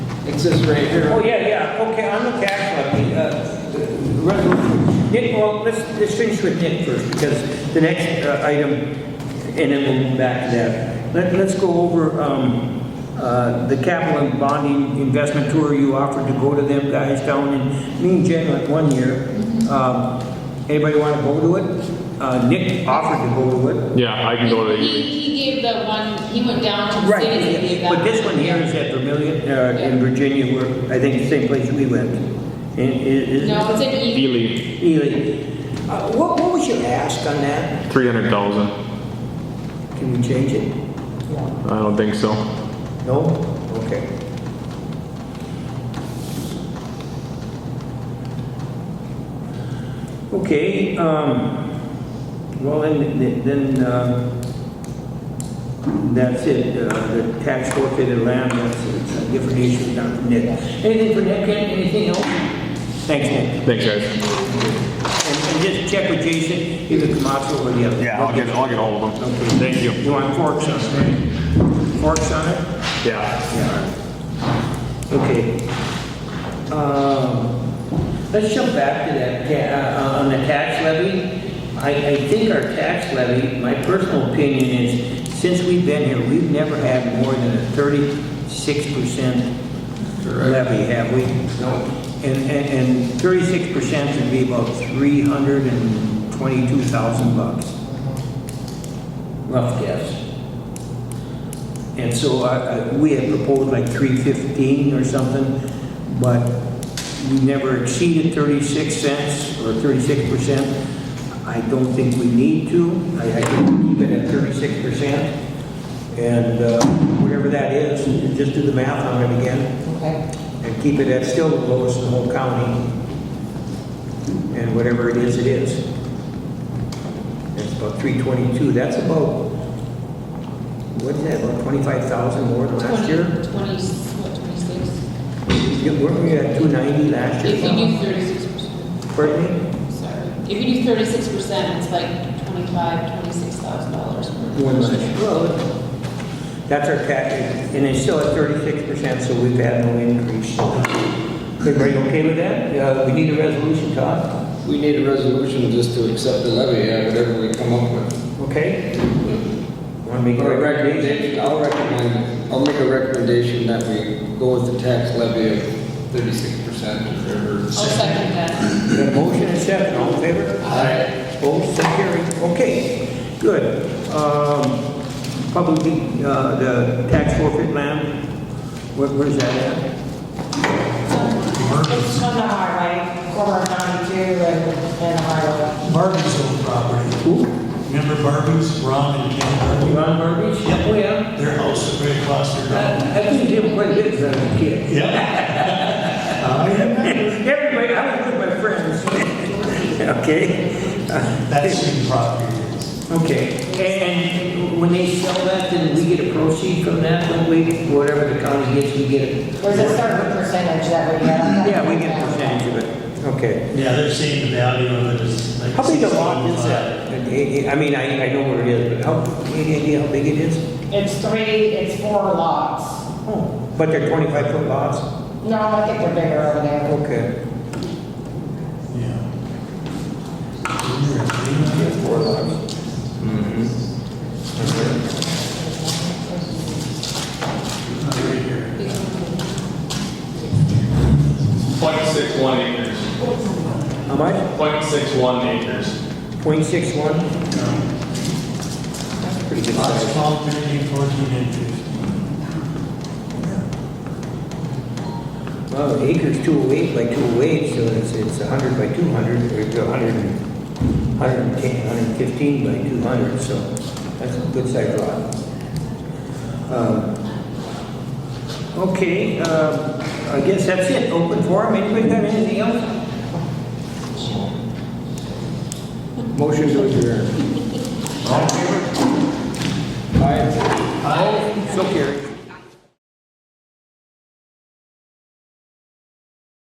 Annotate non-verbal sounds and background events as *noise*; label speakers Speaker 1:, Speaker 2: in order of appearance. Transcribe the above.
Speaker 1: It says right
Speaker 2: Oh,
Speaker 1: here,
Speaker 2: yeah, yeah, okay, on the tax levy, uh, resolution, Nick, well, let's, let's finish with Nick first, because the next uh, item, and then we'll move back to that. Let, let's go over, um, uh, the capital and bonding investment tour you offered to go to them guys down in, me and Jen went one year. Um, anybody wanna go to it? Uh, Nick offered to go to it.
Speaker 3: Yeah, I can go to
Speaker 4: He,
Speaker 3: the,
Speaker 4: he gave the one, he went down to the
Speaker 2: Right,
Speaker 4: cities and gave
Speaker 2: yeah,
Speaker 4: that.
Speaker 2: but this one here is at Vermillion, uh, in Virginia, where, I think the same place we went. And it, it.
Speaker 4: No, it's an E.
Speaker 3: Ely,
Speaker 2: Ely, uh, what, what was your ask on that?
Speaker 3: three hundred thousand.
Speaker 2: Can we change it?
Speaker 3: I don't think so.
Speaker 2: No? Okay. Okay, um, well, then, then, uh, that's it, uh, the tax forfeited land, that's it's uh, a different issue down from Nick. Anything for Nick, Ken? anything else? Thanks, Nick.
Speaker 3: Thanks, guys.
Speaker 2: And and just check with Jason, either Camacho or the other.
Speaker 3: Yeah, I'll get, I'll get hold of them.
Speaker 2: Okay.
Speaker 3: Thank you.
Speaker 2: You want forks on it, right? Forks on it?
Speaker 3: Yeah.
Speaker 2: Okay. Um, Let's jump back to that, ta- uh, on the tax levy. I, I think our tax levy, my personal opinion is, since we've been here, we've never had more than a thirty-six percent levy, have we? No. And, and, and thirty-six percent would be about three hundred and twenty-two thousand bucks. Rough guess. And so I- I- we had proposed like 315 or something, but we never exceeded 36 cents or 36%. I don't think we need to. I I think we keep it at 36%. And uh, whatever that is, you just do the math on it again
Speaker 4: Okay.
Speaker 2: and keep it at still the lowest in the whole county. And whatever it is, it is. It's about 322. That's about, what is that, about 25,000 more than last year?
Speaker 4: Twenty, what, twenty-six?
Speaker 2: Yeah, Weren't we at 290 last
Speaker 4: If
Speaker 2: year?
Speaker 4: you do thirty-six percent,
Speaker 2: Pardon
Speaker 4: sorry, if you do thirty-six percent, it's like twenty-five, twenty-six thousand dollars.
Speaker 2: me? More than last year. Well, That's our tax, and it's still at 36%, so we've had no increase. Everybody okay with that? Uh, We need a resolution, Todd?
Speaker 1: we need a resolution just to accept the levy, yeah, whatever we come up with.
Speaker 2: Okay? Want to make a
Speaker 1: Or a
Speaker 2: recommendation?
Speaker 1: recommendation, I'll recommend, I'll make a recommendation that we go with the tax levy of thirty-six percent or
Speaker 4: I'll
Speaker 1: whatever.
Speaker 4: Oh, second that.
Speaker 2: Got a motion and second, all in favor?
Speaker 1: Aye.
Speaker 2: Opposed, so carried. Okay, good. Um, Public, uh, the tax forfeit land, where- where's that at?
Speaker 5: It's on the highway, corner of 92 and and highway.
Speaker 6: Barbee's old property.
Speaker 2: Who?
Speaker 6: Remember Barbee's, Ron and Ken Barbie?
Speaker 2: Ron Burbidge? Yep. Oh, yeah.
Speaker 6: Their house is right across their road.
Speaker 2: I I used to him quite a bit as I was a kid. *laughs*
Speaker 6: Yep. Oh, I remember.
Speaker 2: Everybody, I was with my friends. Okay,
Speaker 6: That's the property. is.
Speaker 2: okay. And when they sell that, then we get a proceed from that, don't we? Whatever the county gets, we get it.
Speaker 5: There's a certain percentage that we get.
Speaker 2: Yeah, we get a percentage of it. Okay.
Speaker 6: Yeah, they're seeing the value of it as like.
Speaker 2: How big a lot is
Speaker 6: 16.5.
Speaker 2: that? I- I I mean, I, I know what it is, but how, any idea how big it is?
Speaker 5: It's three, it's four lots.
Speaker 2: Oh, But they're twenty-five foot lots?
Speaker 5: No, I think they're bigger over there.
Speaker 2: Okay.
Speaker 6: Yeah.
Speaker 2: Four lots. Mm-hmm.
Speaker 7: Point six one acres.
Speaker 2: How much?
Speaker 7: Point six one acres.
Speaker 2: Point six one? That's pretty good
Speaker 6: Lots
Speaker 2: size.
Speaker 6: 12, 13, 14, and 15.
Speaker 2: Well, the acre's two oh eight by two oh eight, so it's, it's a hundred by two hundred, or it's a hundred and, hundred and ten, hundred and fifteen by two hundred, so that's a good size lot. Um, Okay, uh, I guess that's it, open forum, anybody got anything else?
Speaker 1: Motion to adjourn.
Speaker 6: All in